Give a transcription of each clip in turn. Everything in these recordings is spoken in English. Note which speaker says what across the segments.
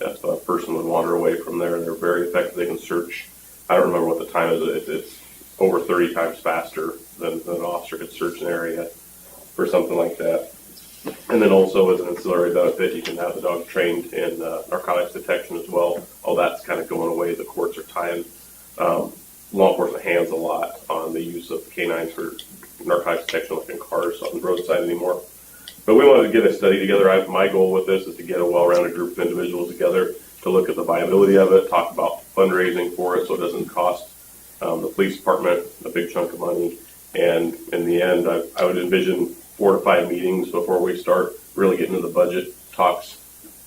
Speaker 1: if a person would wander away from there, they're very effective. They can search. I don't remember what the time is. It, it's over 30 times faster than, than an officer could search an area for something like that. And then also as an ancillary benefit, you can have the dog trained in uh, narcotics detection as well. All that's kind of going away. The courts are tying um, law enforcement hands a lot on the use of canines for narcotics detection, like in cars on the roadside anymore. But we wanted to get a study together. I, my goal with this is to get a well-rounded group of individuals together to look at the viability of it, talk about fundraising for it so it doesn't cost um, the police department a big chunk of money. And in the end, I, I would envision four to five meetings before we start really getting into the budget talks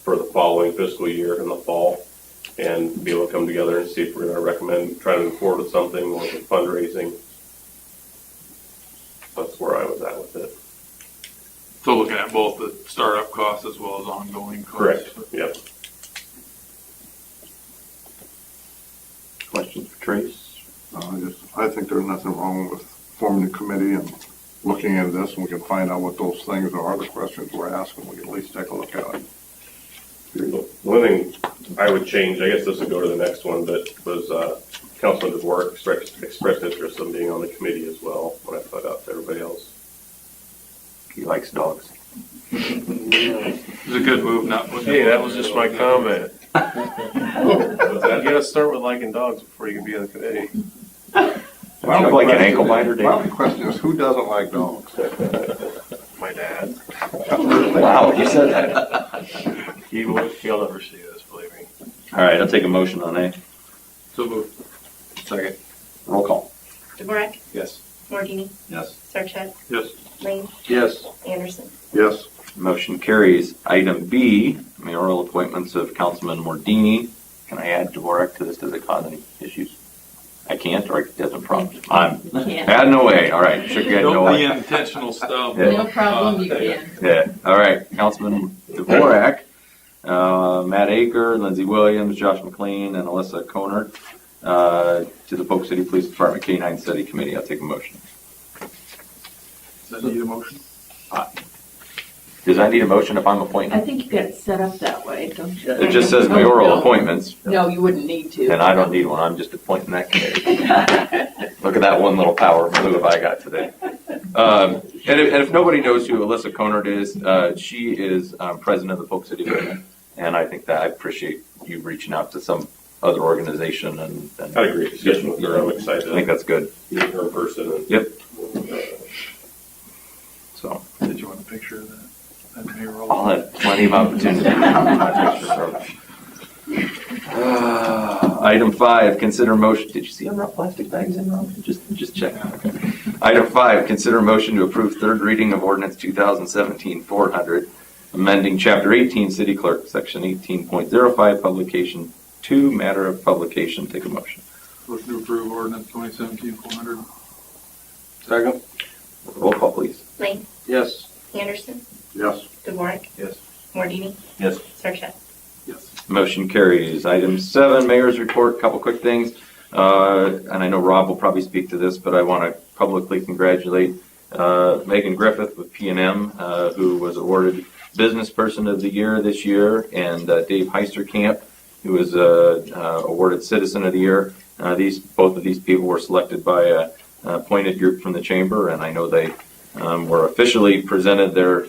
Speaker 1: for the following fiscal year in the fall and be able to come together and see if we're going to recommend, try to move forward with something or with fundraising. That's where I was at with it.
Speaker 2: So looking at both the startup costs as well as ongoing costs.
Speaker 1: Correct, yep.
Speaker 3: Questions for Trace?
Speaker 4: Uh, I just, I think there's nothing wrong with forming a committee and looking into this, and we can find out what those things are, the questions we're asking, we can at least take a look at it.
Speaker 1: The One thing I would change, I guess this would go to the next one, but was uh, Councilman DeVore expressed, expressed interest in being on the committee as well, when I put out to everybody else.
Speaker 3: He likes dogs.
Speaker 2: It's a good move not putting.
Speaker 5: Hey, that was just my comment.
Speaker 1: Was
Speaker 5: You
Speaker 1: that-
Speaker 5: gotta start with liking dogs before you can be on the committee.
Speaker 4: My only
Speaker 3: Sounds like an
Speaker 4: question
Speaker 3: ankle
Speaker 4: is-
Speaker 3: biter,
Speaker 4: My
Speaker 3: Dave.
Speaker 4: only question is, who doesn't like dogs?
Speaker 5: My dad.
Speaker 3: Wow, you said that.
Speaker 5: He will, he'll never see this, believe me.
Speaker 3: All right, I'll take a motion on A.
Speaker 2: So moved.
Speaker 5: Second.
Speaker 3: Roll call.
Speaker 6: Dvorak,
Speaker 5: Yes.
Speaker 6: Mordini,
Speaker 5: Yes.
Speaker 6: Sarchet,
Speaker 2: Yes.
Speaker 6: Lane,
Speaker 5: Yes.
Speaker 6: Anderson.
Speaker 4: Yes,
Speaker 3: Motion carries. Item B, mayoral appointments of Councilman Mordini. Can I add Dvorak to this? Does it cause any issues? I can't, or it doesn't prompt. I'm,
Speaker 7: Yeah,
Speaker 3: had no way. All right, shook your head no
Speaker 2: Don't be
Speaker 3: way.
Speaker 2: intentional stuff. Uh,
Speaker 3: Yeah.
Speaker 7: no problem, you can.
Speaker 3: Yeah, all right, Councilman Dvorak, uh, Matt Aker, Lindsey Williams, Josh McLean, and Alyssa Conard, uh, to the Polk City Police Department K-9 Study Committee. I'll take a motion.
Speaker 2: Does that need a motion?
Speaker 3: Does I need a motion if I'm
Speaker 7: I
Speaker 3: appointed?
Speaker 7: think you got it set up that way, don't you?
Speaker 3: It just says mayoral appointments,
Speaker 7: No, you wouldn't need to.
Speaker 3: and I don't need one, I'm just appointing that committee. Look at that one little power move I got today. Um, And if, and if nobody knows who Alyssa Conard is, uh, she is um, president of the Polk City Women, and I think that I appreciate you reaching out to some other organization and. and-
Speaker 1: Had a great discussion with her. I'm
Speaker 3: I
Speaker 1: excited
Speaker 3: think
Speaker 1: to
Speaker 3: that's good,
Speaker 1: meet her in person and. uh,
Speaker 3: Yep. so.
Speaker 5: Did you want a picture of that? That payroll?
Speaker 3: I'll have plenty of opportunity. Uh, Item five, consider motion, did you see I brought plastic bags in, Rob? Just, just check. Okay. Item five, consider motion to approve third reading of ordinance 2017-400, amending chapter 18, city clerk, section 18.05, publication two, matter of publication. Take a motion.
Speaker 2: Motion to approve ordinance twenty seventeen four hundred.
Speaker 5: Second.
Speaker 3: Roll call, please.
Speaker 6: Lane,
Speaker 5: Yes.
Speaker 6: Anderson,
Speaker 4: yes.
Speaker 6: Dvorak,
Speaker 5: Yes.
Speaker 6: Mordini,
Speaker 3: Yes.
Speaker 6: Sarchet.
Speaker 5: Yes.
Speaker 3: Motion carries. Item seven, mayor's report, couple quick things. Uh, And I know Rob will probably speak to this, but I want to publicly congratulate uh, Megan Griffith with P and M, uh, who was awarded Business Person of the Year this year, and uh, Dave Heisterkamp, who was uh, uh, awarded Citizen of the Year. Uh, These, both of these people were selected by a an appointed group from the chamber, and I know they um, were officially presented their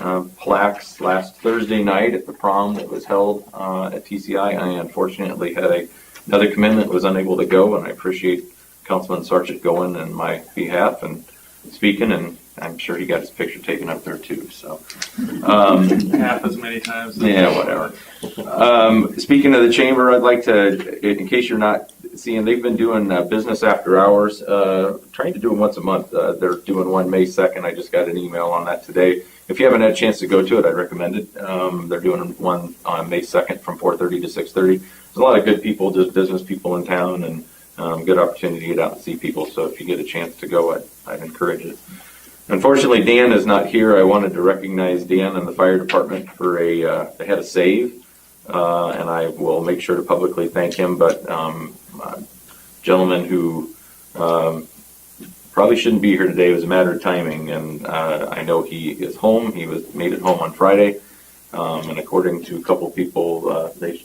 Speaker 3: uh, plaques last Thursday night at the prom that was held uh, at TCI. I unfortunately had a, another commitment, was unable to go, and I appreciate Councilman Sargent going in my behalf and speaking, and I'm sure he got his picture taken up there too, so. Um,
Speaker 5: Half as many times. as-
Speaker 3: Yeah, whatever. um, Speaking of the chamber, I'd like to, in case you're not seeing, they've been doing uh, business after hours, uh, trying to do them once a month. Uh, They're doing one May 2nd. I just got an email on that today. If you haven't had a chance to go to it, I'd recommend it. Um, they're doing one on May 2nd from 4:30 to 6:30. There's a lot of good people, just business people in town, and um, good opportunity to get out and see people. So if you get a chance to go, I'd, I'd encourage it. Unfortunately, Dan is not here. I wanted to recognize Dan and the fire department for a uh, they had a save, uh, and I will make sure to publicly thank him. But um, uh, gentleman who um, probably shouldn't be here today. It was a matter of timing, and uh, I know he is home. He was made it home on Friday, um, and according to a couple people, uh, they